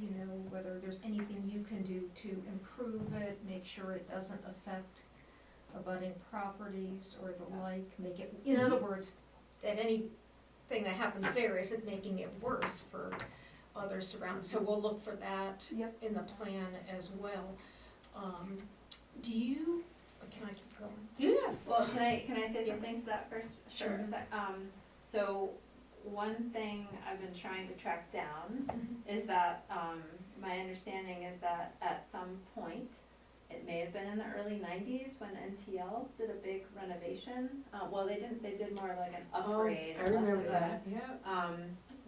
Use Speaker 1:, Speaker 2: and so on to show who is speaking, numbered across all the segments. Speaker 1: you know, whether there's anything you can do to improve it, make sure it doesn't affect abutting properties or the like, make it, in other words, that anything that happens there isn't making it worse for others surrounding, so we'll look for that
Speaker 2: Yep.
Speaker 1: in the plan as well. Um, do you, can I keep going?
Speaker 2: Yeah.
Speaker 3: Well, can I, can I say
Speaker 1: Yeah.
Speaker 3: something to that first?
Speaker 1: Sure.
Speaker 3: Or is that- Um, so, one thing I've been trying to track down
Speaker 2: Mm-hmm.
Speaker 3: is that, um, my understanding is that at some point, it may have been in the early nineties when NTL did a big renovation, uh, well, they didn't, they did more of like an upgrade.
Speaker 2: Oh, I
Speaker 3: and less
Speaker 2: remember
Speaker 3: of a-
Speaker 2: that, yeah.
Speaker 3: um,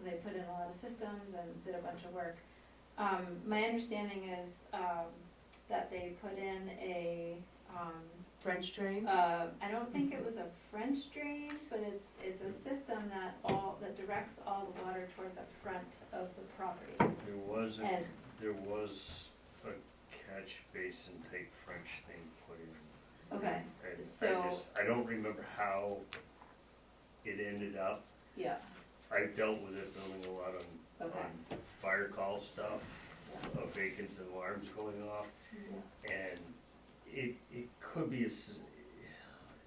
Speaker 3: they put in a lot of systems and did a bunch of work. Um, my understanding is, um, that they put in a, um,
Speaker 2: French drain.
Speaker 3: uh, I don't think it was a French drain, but it's, it's a system that all, that directs all the water toward the front of the property.
Speaker 4: There was, a
Speaker 3: And,
Speaker 4: there was a catch basin type French thing put in.
Speaker 3: okay,
Speaker 4: And
Speaker 3: So-
Speaker 4: I just, I don't remember how it ended up.
Speaker 3: yeah,
Speaker 4: I dealt with it building a lot on,
Speaker 3: okay.
Speaker 4: on fire call stuff, of vacants and alarms going off. And it, it could be, a s-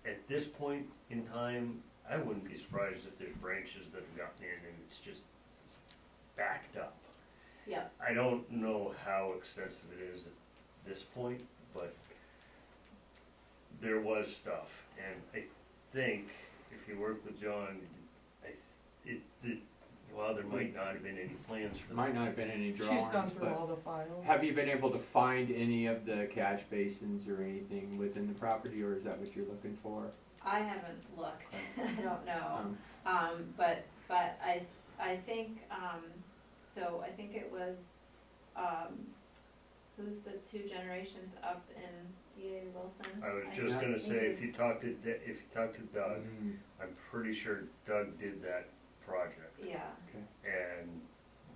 Speaker 4: at this point in time, I wouldn't be surprised if there's branches that have gotten in and it's just backed up.
Speaker 3: Yeah,
Speaker 4: I don't know how extensive it is at this point, but there was stuff, and I think if you work with John, I, th- it, it, while there might not have been any plans for that.
Speaker 5: Might not have been any
Speaker 2: She's
Speaker 5: drawings,
Speaker 2: gone through
Speaker 5: but
Speaker 2: all the files.
Speaker 5: have you been able to find any of the catch basins or anything within the property, or is that what you're looking for?
Speaker 3: I haven't looked, I don't know.
Speaker 5: Um,
Speaker 3: Um, but, but I, I think, um, so I think it was, um, who's the two generations up in DA Wilson?
Speaker 4: I was just gonna say, if
Speaker 3: think
Speaker 4: you talk to, Da- if you talk to Doug,
Speaker 5: mm,
Speaker 4: I'm pretty sure Doug did that project,
Speaker 3: it's- Yeah,
Speaker 5: Okay.
Speaker 4: and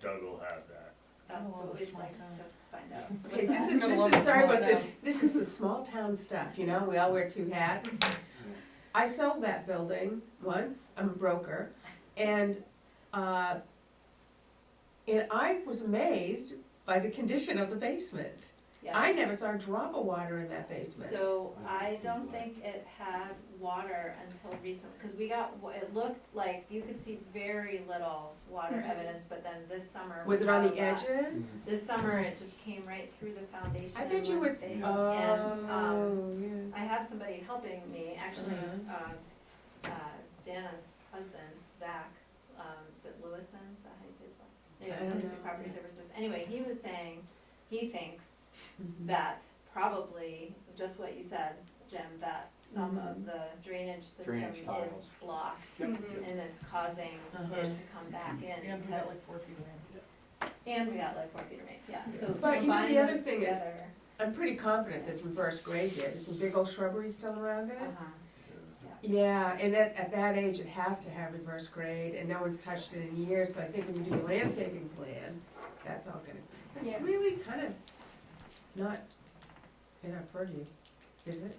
Speaker 4: Doug will have that.
Speaker 3: that's
Speaker 2: Oh,
Speaker 3: what we'd
Speaker 2: small
Speaker 3: like
Speaker 2: town.
Speaker 3: to find out.
Speaker 6: Okay, this is,
Speaker 2: I'm gonna
Speaker 6: this
Speaker 2: love
Speaker 6: is,
Speaker 2: the
Speaker 6: sorry
Speaker 2: small
Speaker 6: about this,
Speaker 2: town.
Speaker 6: this is the small town stuff, you know, we all wear two hats. I sold that building once, I'm a broker, and, uh, and I was amazed by the condition of the basement.
Speaker 3: Yeah.
Speaker 6: I never saw a drop of water in that basement.
Speaker 3: So I
Speaker 5: I
Speaker 3: don't
Speaker 5: don't
Speaker 3: think it had water until recently, because we got, wa- it looked like, you could see very little water
Speaker 1: Mhm.
Speaker 3: evidence, but then this summer.
Speaker 6: Mm-hmm. Was
Speaker 3: we
Speaker 6: it on
Speaker 3: got
Speaker 6: the
Speaker 3: a
Speaker 2: uh,
Speaker 3: lot.
Speaker 5: Mm.
Speaker 6: edges?
Speaker 3: This summer, it just came right through the foundation.
Speaker 6: I
Speaker 3: in
Speaker 6: bet you
Speaker 3: one
Speaker 6: it's,
Speaker 3: space. And, um,
Speaker 6: oh, yeah.
Speaker 3: I have somebody helping me, actually,
Speaker 6: Uh-huh.
Speaker 3: um, uh, Dana's husband, Zach, um, is it Lewison, is that how you say his last?
Speaker 6: I
Speaker 3: Anyway,
Speaker 6: don't
Speaker 3: Holistic
Speaker 6: know.
Speaker 3: Property Services, anyway, he was saying, he thinks
Speaker 6: Mhm.
Speaker 3: that probably, just what you said, Jim, that some
Speaker 6: Mm-hmm.
Speaker 3: of the drainage system
Speaker 5: Drainage
Speaker 3: is
Speaker 5: tiles.
Speaker 3: blocked
Speaker 5: Yep,
Speaker 1: Mhm.
Speaker 5: yep.
Speaker 3: and it's causing
Speaker 6: Uh-huh.
Speaker 3: it to come back in
Speaker 2: And we got
Speaker 3: because,
Speaker 2: like four feet of rain.
Speaker 3: and we got like four feet of rain, yeah, so
Speaker 6: But you know,
Speaker 3: combine
Speaker 6: the other
Speaker 3: those
Speaker 6: thing is-
Speaker 3: together,
Speaker 6: I'm pretty confident that's reverse grade there, there's some big old shrubbery still around it.
Speaker 3: uh-huh,
Speaker 6: Yeah, and that, at that age, it has to have reverse grade, and no one's touched it in years, so I think when you do the landscaping plan, that's all gonna,
Speaker 1: Yeah.
Speaker 6: that's really kind of not in our purview, is it?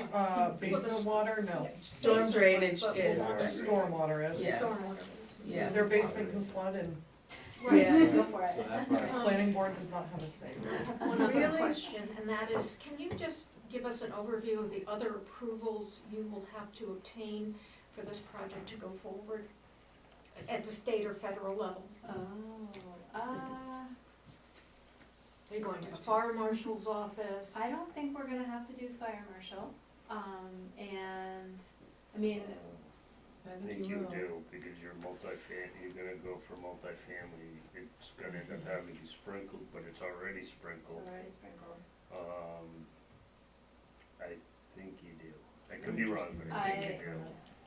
Speaker 2: Uh,
Speaker 1: Well, the s-
Speaker 2: basement water, no.
Speaker 6: Storm drainage
Speaker 1: But- but
Speaker 6: is,
Speaker 1: we'll-
Speaker 4: but-
Speaker 2: Stormwater is.
Speaker 6: Yeah.
Speaker 1: Stormwater is-
Speaker 6: Yeah.
Speaker 2: Their basement can flood and
Speaker 1: Right.
Speaker 6: Yeah.
Speaker 3: go for
Speaker 5: So
Speaker 3: it.
Speaker 5: that part.
Speaker 1: Um,
Speaker 2: the planning board does not have a say.
Speaker 1: I have one other
Speaker 6: Really?
Speaker 1: question, and that is, can you just give us an overview of the other approvals you will have to obtain for this project to go forward at the state or federal level?
Speaker 3: Oh, uh,
Speaker 1: Are you going to the fire marshal's office?
Speaker 3: I don't think we're gonna have to do fire marshal, um, and, I mean,
Speaker 4: Um,
Speaker 6: I
Speaker 4: I think you do, because you're multifam, you're gonna go for multifamily, it's gonna end up having to be sprinkled, but it's already
Speaker 3: it's
Speaker 4: sprinkled.
Speaker 3: already sprinkled.
Speaker 4: Um, I think you do. I could be wrong, but I think you do.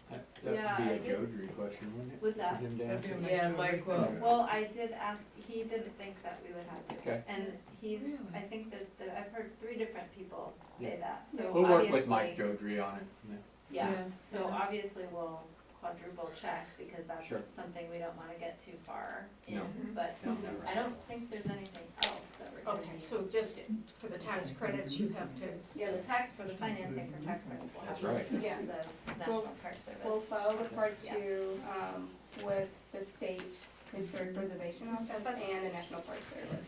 Speaker 5: That
Speaker 3: Yeah,
Speaker 5: that
Speaker 3: I
Speaker 5: would be a
Speaker 3: did-
Speaker 5: Jodry question, wouldn't it?
Speaker 3: What's
Speaker 5: for
Speaker 3: that?
Speaker 5: him to
Speaker 2: That'd
Speaker 5: answer?
Speaker 2: be a
Speaker 6: Yeah,
Speaker 2: major-
Speaker 6: Mike will.
Speaker 3: Well, I did ask, he didn't think that we would have to.
Speaker 5: Okay.
Speaker 3: And he's,
Speaker 6: Really?
Speaker 3: I think there's, the- I've heard three different people say
Speaker 5: Yeah.
Speaker 3: that, so obviously.
Speaker 5: We'll work with Mike Jodry on it, yeah.
Speaker 3: Yeah, so
Speaker 6: Yeah.
Speaker 3: obviously we'll quadruple check because
Speaker 5: Sure.
Speaker 3: that's something we don't wanna get too far in,
Speaker 5: No.
Speaker 3: but
Speaker 5: No, never.
Speaker 3: I don't think there's anything else that we're gonna
Speaker 1: Okay,
Speaker 3: need
Speaker 1: so
Speaker 3: to
Speaker 1: just-
Speaker 3: do.
Speaker 1: For the tax credits, you have to,
Speaker 3: Yeah, the tax for the financing for tax credits will have.
Speaker 5: That's right.
Speaker 3: to go
Speaker 7: Yeah.
Speaker 3: to The National Park Service.
Speaker 7: We'll file the part
Speaker 3: Yeah.
Speaker 7: two, um, with the state historic preservation office and the National Park Service.